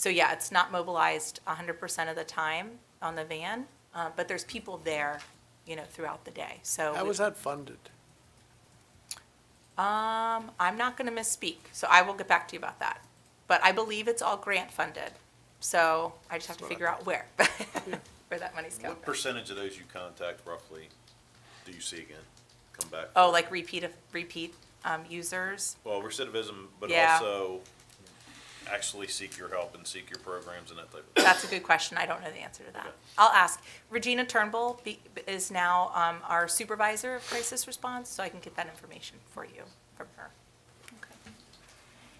So yeah, it's not mobilized 100% of the time on the van, uh, but there's people there, you know, throughout the day. So How we- was that funded? um, I'm not going to misspeak, so I will get back to you about that. But I believe it's all grant funded, so I just have to That's what I figure out where, where that money's coming What from. percentage of those you contact roughly do you see again, come back? Oh, like repeat, of- repeat um, users? Well, recidivism, but Yeah. also actually seek your help and seek your programs and that type of thing. That's a good question. I don't know the answer to that. Okay. I'll ask. Regina Turnbull be- is now um, our supervisor of crisis response, so I can get that information for you from her.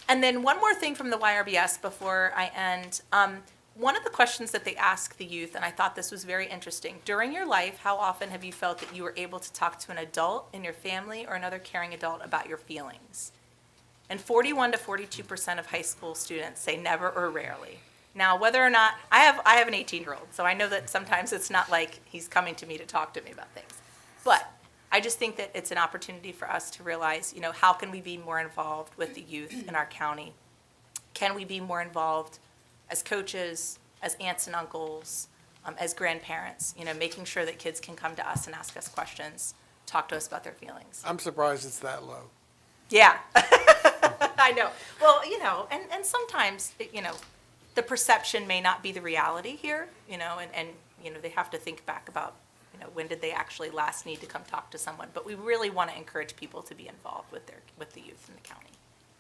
And then one more thing from the YRBS before I end. Um, one of the questions that they ask the youth, and I thought this was very interesting during your life, how often have you felt that you were able to talk to an adult in your family or another caring adult about your feelings? And 41 to 42% of high school students say never or rarely. Now, whether or not, I have, I have an 18-year-old, so I know that sometimes it's not like he's coming to me to talk to me about things. But I just think that it's an opportunity for us to realize, you know, how can we be more involved with the youth in our county? Can we be more involved as coaches, as aunts and uncles, um, as grandparents? You know, making sure that kids can come to us and ask us questions, talk to us about their feelings. I'm surprised it's that low. Yeah. I know. Well, you know, and, and sometimes, you know, the perception may not be the reality here, you know, and, and, you know, they have to think back about, you know, when did they actually last need to come talk to someone? But we really want to encourage people to be involved with their, with the youth in the county.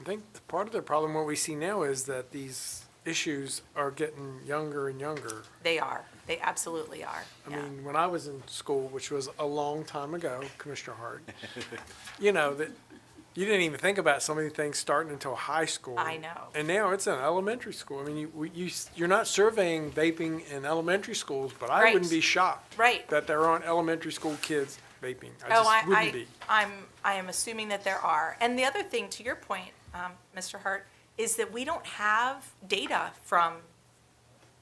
I think the part of the problem, what we see now is that these issues are getting younger and younger. They are. They absolutely are. I Yeah. mean, when I was in school, which was a long time ago, Commissioner Hart, you know, that you didn't even think about some of the things starting until high school. I know. And now it's in elementary school. I mean, you, we- you, s- you're not surveying vaping in elementary schools, but I Right. wouldn't be shocked Right. that there aren't elementary school kids vaping. I Oh, just wouldn't I, be. I, I'm, I am assuming that there are. And the other thing, to your point, um, Mr. Hart, is that we don't have data from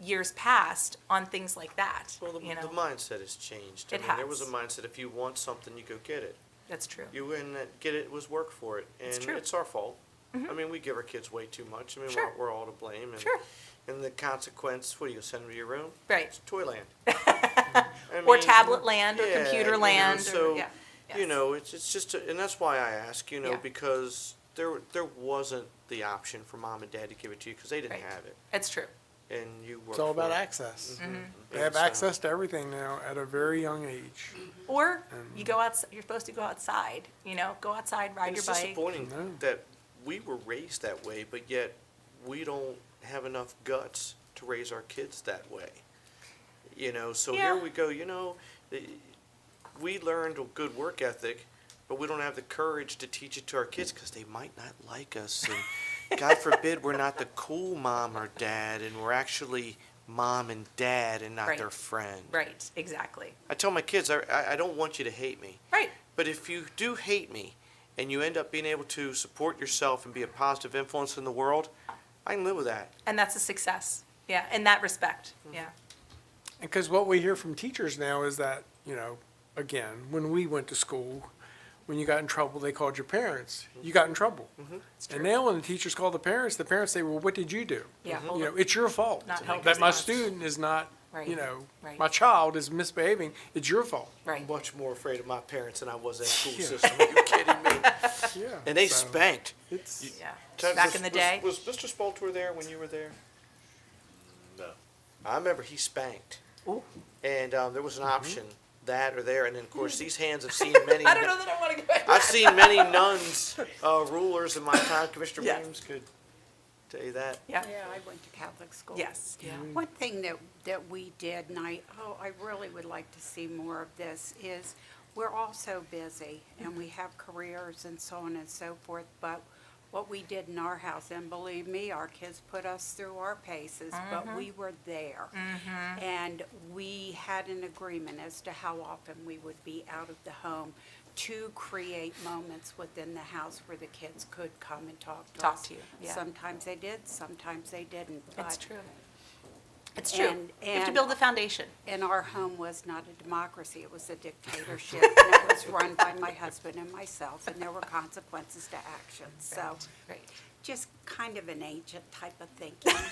years past on things like that, Well, the, you the know? mindset has changed. I It mean, There was a has. mindset, if you want something, you go get it. That's true. You win that, get it, was work for it. It's And true. Mm-hmm. it's our fault. I mean, we give our kids way too much. I mean, Sure. we're, we're all to blame. And, Sure. and the consequence, what do you send them to your room? Right. It's Toyland. I Or mean, tablet land or yeah, you computer know, land or, so, yeah. You yes. know, it's, it's just, a- and that's why I ask, you know, Yeah. because there, there wasn't the option for mom and dad to give it to you because they didn't Right. have it. It's true. And you worked It's all about for Mm-hmm. it. access. Mm-hmm. They And have so- access to everything now at a very young age. Or Um, you go outs, you're supposed to go outside, you know, go outside, ride And your it's bike. disappointing No. that we were raised that way, but yet we don't have enough guts to raise our kids that way. You know, so Yeah. here we go. You know, the- we learned a good work ethic, but we don't have the courage to teach it to our kids because they might not like us. And God forbid we're not the cool mom or dad, and we're actually mom and dad and not Right. their friend. Right, exactly. I tell my kids, I, I, I don't want you to hate me. Right, But if you do hate me and you end up being able to support yourself and be a positive influence in the world, I can live with that. and that's a success. Yeah, in that respect, Mm-hmm. yeah. And because what we hear from teachers now is that, you know, again, when we went to school, when you got in trouble, they called your parents. You got in trouble. Mm-hmm. And now when the teachers call the parents, the parents say, well, what did you do? Yeah. Mm-hmm. You know, it's your fault Not helped that my response. student is not, Right. you know, Right. my child is misbehaving. It's your fault. Right, much more afraid of my parents than I was that school Yeah. system. Are you kidding me? Yeah. And they So spanked. It's, yeah. Ted, Back was- in the was- day. Was Mr. Spalter there when you were there? No. I remember he spanked. Ooh. And um, there was an option, that or there. And then, of course, these hands have seen many. Hmm. I don't know that I want to go back. I've seen many nuns, uh, rulers in my time. Commissioner Yes. Williams could tell you that. Yeah, Yeah, I went to Catholic school. yes, yeah. One thing that, that we did, and I, oh, I really would like to see more of this, is we're all so busy and we have careers and so on and so forth, but what we did in our house, and believe me, our kids put us through our paces, Mm-hmm. but we were there. And we had an agreement as to how often we would be out of the home to create moments within the house where the kids could come and talk to us. Talk to you, yeah. Sometimes they did, sometimes they didn't. It's but true. It's true. And- you have to and- build the foundation. and our home was not a democracy, it was a dictatorship, and it was run by my husband and myself, and there were consequences to actions, so Right. just kind of an ancient type of thinking.